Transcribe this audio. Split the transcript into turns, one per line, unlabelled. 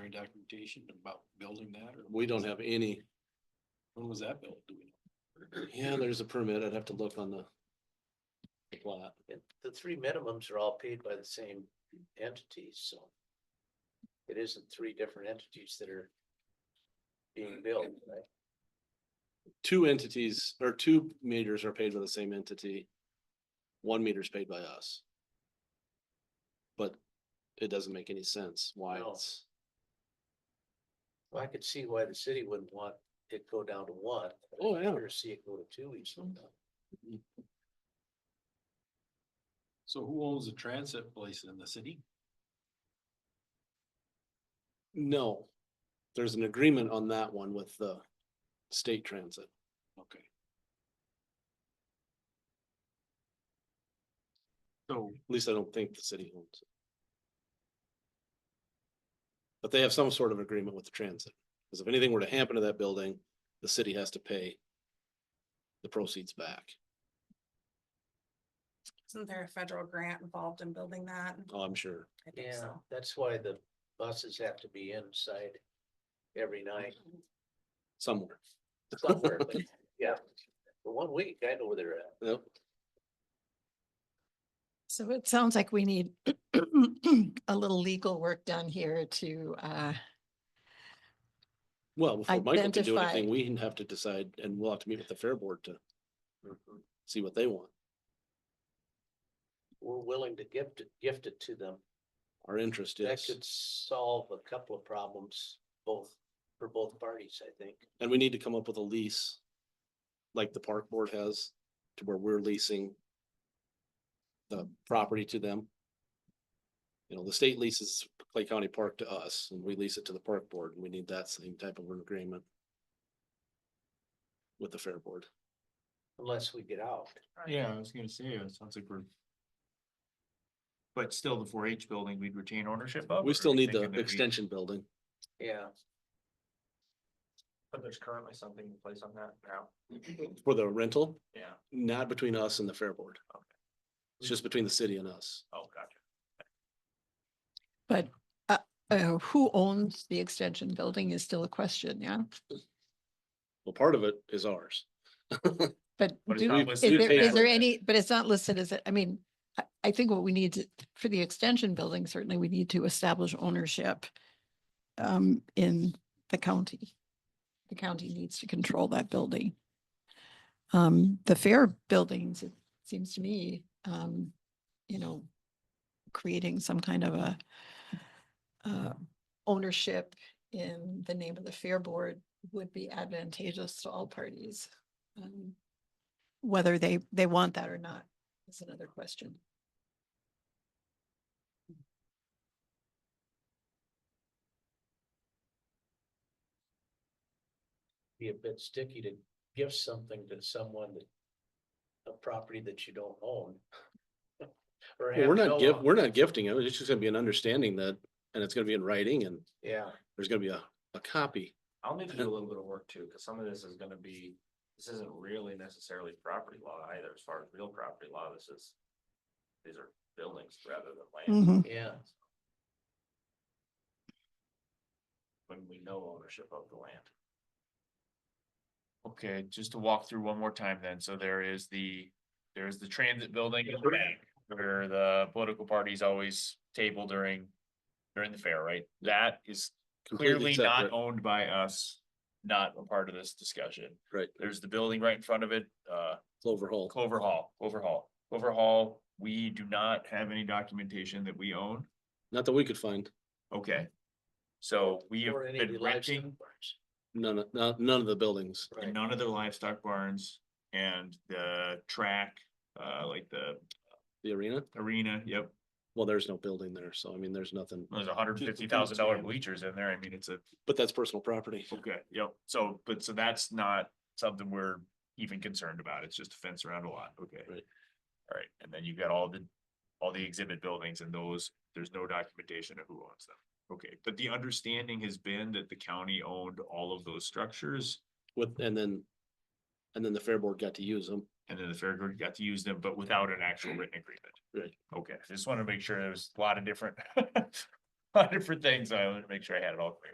preliminary documentation about building that or?
We don't have any,
When was that built? Do we know?
yeah, there's a permit, I'd have to look on the the plot.
And the three minimums are all paid by the same entities, so. It isn't three different entities that are being billed, right?
Two entities or two meters are paid by the same entity. One meter is paid by us. But it doesn't make any sense why
No.
it's,
Well, I could see why the city wouldn't want it go down to one. but I
Oh,
could
yeah.
sure See it go to two each sometime.
So who owns the transit place in the city?
no. There's an agreement on that one with the state transit.
Okay. So,
At least I don't think the city owns it. But they have some sort of agreement with the transit, because if anything were to happen to that building, the city has to pay the proceeds back.
Isn't there a federal grant involved in building that?
Oh, I'm sure.
I think
Yeah,
so.
that's why the buses have to be inside every night
Somewhere.
somewhere, but yeah. For one week, I know where they're at.
Yep.
So it sounds like we need a little legal work done here to, uh,
Well, before Michael can do
Identify.
anything, we have to decide, and we'll have to meet with the fair board to see what they want.
We're willing to gift it, gift it to them.
Our interest
That
is,
could solve a couple of problems, both, for both parties, I think.
and we need to come up with a lease. Like the park board has, to where we're leasing. The property to them. You know, the state leases Clay County Park to us, and we lease it to the park board, and we need that same type of an agreement. With the fair board.
Unless we get out,
Yeah, I was gonna say, it sounds like we're. But still, the four H building, we'd retain ownership of? or are
We still
you
need the
thinking that we-
extension building.
yeah.
But there's currently something in place on that now.
For the rental,
Yeah,
not between us and the fair board.
Okay.
It's just between the city and us.
oh, gotcha.
but, uh, uh, who owns the extension building is still a question, yeah?
Well, part of it is ours.
But
But it's
do,
not
is
listed
there,
as
is there
that.
any, but it's not listed as, a- I mean, I, I think what we need to, for the extension building, certainly we need to establish ownership um, in the county. The county needs to control that building. Um, the fair buildings, it seems to me, um, you know, creating some kind of a uh, ownership in the name of the fair board would be advantageous to all parties. Um, whether they, they want that or not is another question.
Be a bit sticky to give something to someone that. A property that you don't own. Or
Well,
have
We're
no
not gift,
own.
we're not gifting it. It's just gonna be an understanding that, and it's gonna be in writing and
Yeah,
there's gonna be a, a copy.
I'll need to do a little bit of work too, cause some of this is gonna be, this isn't really necessarily property law either, as far as real property law, this is. These are buildings rather than land.
Mhm.
yeah,
when we know ownership of the land. Okay, just to walk through one more time then, so there is the, there's the transit building in the back, where the political parties always table during. During the fair, right? That is
completely
clearly not
separate.
owned by us, not a part of this discussion.
Right.
There's the building right in front of it, uh,
Clover Hall.
Clover Hall, Clover Hall, Clover Hall, we do not have any documentation that we own,
Not that we could find.
okay? So we have
or any
been
livestock
renting.
farms.
None, of- no- none of the buildings.
Right.
and none of their livestock barns and the track, uh, like the
The arena,
arena, yep.
well, there's no building there. So I mean, there's nothing,
There's a hundred and fifty thousand dollar bleachers in there, I mean, it's a,
but that's personal property.
okay, yep, so, but so that's not something we're even concerned about, it's just a fence around a lot, okay.
Right.
Alright, and then you've got all the, all the exhibit buildings and those, there's no documentation of who owns them. Okay, but the understanding has been that the county owned all of those structures
With, and then, and then the fair board got to use them.
And then the fair board got to use them, but without an actual written agreement.
Right.
Okay, I just wanted to make sure there was a lot of different hundred for things, I wanted to make sure I had it all clear.